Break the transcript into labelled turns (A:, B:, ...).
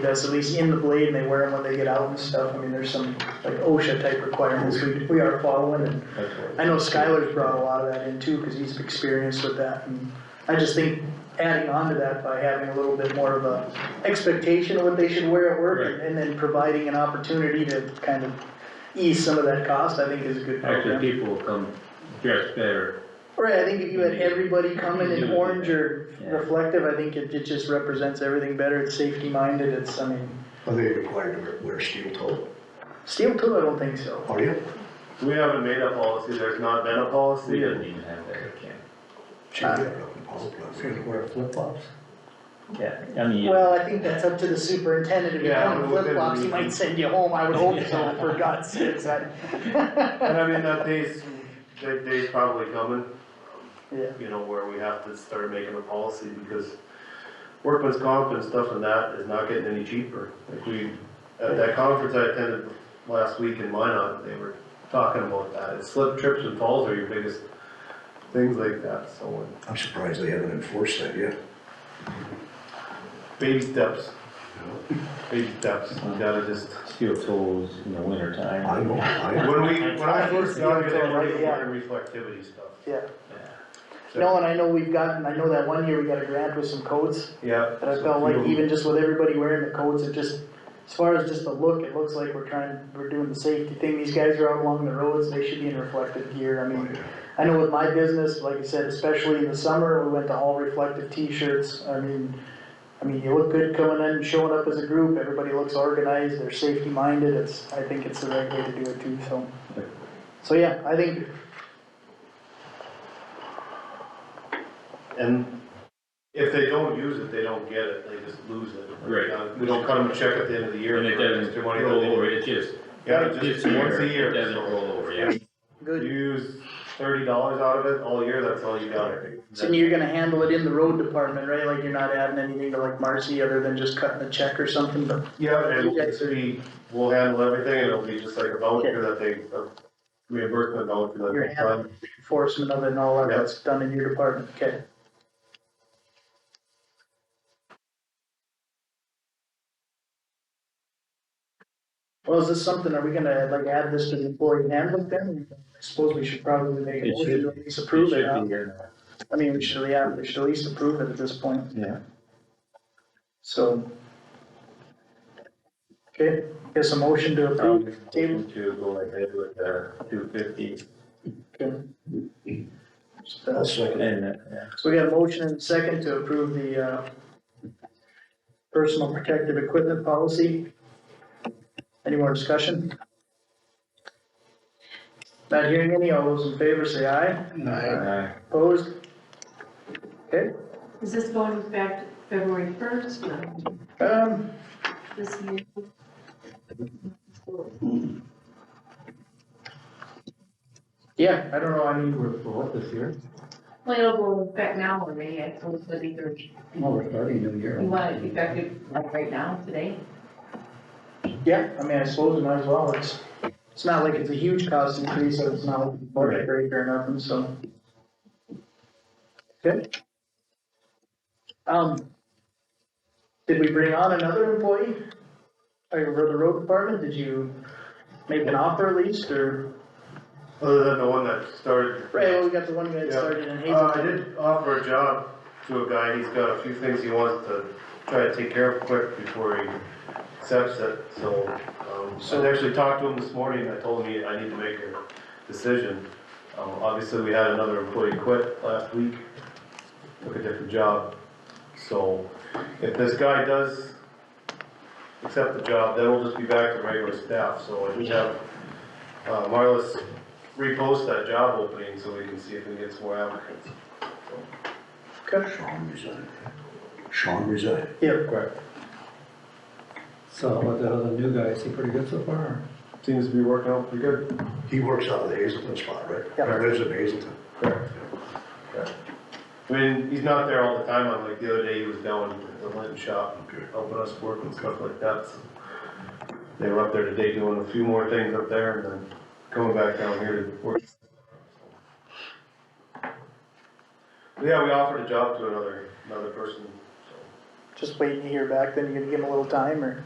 A: does, at least in the blade, and they wear them when they get out and stuff, I mean, there's some, like OSHA type requirements we, we are following, and I know Skylar's brought a lot of that in too, cause he's experienced with that, and I just think adding on to that by having a little bit more of a expectation of what they should wear at work, and- and then providing an opportunity to kind of ease some of that cost, I think is a good
B: Actually,
A: program.
B: people will come dressed better.
A: Right, I think if you had everybody coming in orange or
B: Yeah.
A: reflective, I think it, it just represents everything better, it's safety minded, it's, I mean,
C: Are they required to wear- wear steel toe?
A: steel too, I don't think so.
C: Are you?
D: We haven't made a policy, there's not been a
B: We
D: policy,
B: don't
D: and
B: even have that at camp.
C: Should be up in Paul Plaza.
B: Yeah, I mean, you-
A: Well, I think that's up to the superintendent, if you
D: Yeah,
A: come with
D: well, then
A: flip flops, he
D: we-
A: might send you home, I would hope so, for God's sakes, I.
D: and I mean, that day's, that day's probably coming,
A: Yeah,
D: you know, where we have to start making a policy because workman's comp and stuff and that is not getting any cheaper. Like we, at that conference I attended last week in Minot, they were talking about that. It's slip, trips and falls are your biggest things like that, so and
C: I'm surprised they haven't enforced that yet.
D: baby steps. Baby steps, you gotta just,
B: steel toes in the winter
C: I
B: time.
C: know, I,
D: when we, when I first got here, they were
A: Yeah.
D: wearing reflectivity stuff.
A: yeah,
D: So-
A: no, and I know we've gotten, I know that one year we got a grant with some coats,
D: Yeah.
A: but I felt like even just with everybody wearing the coats, it just, as far as just the look, it looks like we're trying, we're doing the safety thing, these guys are out along the roads, they should be in reflective gear, I mean, I know with my business, like I said, especially in the summer, we went to all reflective t-shirts, I mean, I mean, you look good coming in, showing up as a group, everybody looks organized, they're safety minded, it's, I think it's the right way to do it too, so. So, yeah, I think
D: And if they don't use it, they don't get it, they just lose it.
B: Right.
D: Uh, We don't cut them a check at the end of the year.
B: And it
D: for
B: doesn't
D: extra money that
B: roll
D: they-
B: over, it just,
D: Yeah,
B: this
D: just once a
B: year, it
D: year.
B: doesn't
D: so
B: roll over, yeah.
D: You
A: Good,
D: use thirty dollars out of it all year, that's all you got.
A: so you're gonna handle it in the road department, right, like you're not adding anything to like Marcy, other than just cutting a check or something, but,
D: Yeah, and
A: You
D: the
A: guys-
D: city will handle everything, and it'll be just like a voucher that they, a reimbursement voucher that
A: You're
D: they find.
A: enforcement of it and all that,
D: Yeah.
A: that's done in your department, okay? Well, is this something, are we gonna like add this to the employee handbook then? I suppose we should probably make a
B: It
A: motion to
B: should-
A: at least approve it, huh?
B: should be here
A: I mean, we should, yeah, we should at least approve it at this point,
B: now. Yeah.
A: so. Okay, guess a motion to
B: I'll
A: approve,
B: make a motion
A: table,
B: To go ahead with the two fifty
A: okay.
B: Um,
A: Just, uh,
C: I'll second it.
B: and, uh, yeah.
A: So we got a motion and a second to approve the, uh, personal protective equipment policy. Any more discussion? Not hearing any, all those in favor say aye,
B: Uh,
A: opposed? Okay,
E: Is this going back to February first? No,
A: um,
E: this meeting?
A: yeah, I don't know, I mean,
F: We're, for what this year?
E: Well, it'll go back now already, I suppose, but either,
F: Well, we're starting new year.
E: you want it effective like right now, today?
A: yeah, I mean, I suppose we might as well, it's, it's not like it's a huge cost increase, so it's not like a budget break or nothing, so. Okay. Um, did we bring on another employee? Or for the road department, did you make an offer at least, or,
D: Other than the one that started.
A: right, well, we got the one guy that
D: Yeah.
A: started in
D: Uh, I
A: Hazelton.
D: did offer a job to a guy, he's got a few things he wants to try to take care of quick before he accepts it, so, um,
A: So-
D: I actually talked to him this morning, I told him he- I need to make a decision. Um, obviously, we had another employee quit last week, took a different job, so if this guy does accept the job, then we'll just be back to regular staff, so I just have, uh, Marlis repost that job opening so we can see if we get some more applicants.
A: Okay.
C: Sean resigned. Sean resigned.
A: Yeah,
D: Correct.
F: So, but the other new guy, is he pretty good so far?
D: Seems to be working out pretty good.
C: He works out of the Hazelton spot, right?
A: Yeah.
C: He lives in Hazelton.
D: Correct. Correct. I mean, he's not there all the time, I'm like, the other day he was down at the lint shop,
C: Okay.
D: helping us work and stuff like that. so. They were up there today doing a few more things up there and then coming back down here to work. Yeah, we offered a job to another, another person, so.
A: just waiting to hear back, then you're gonna give them a little time, or?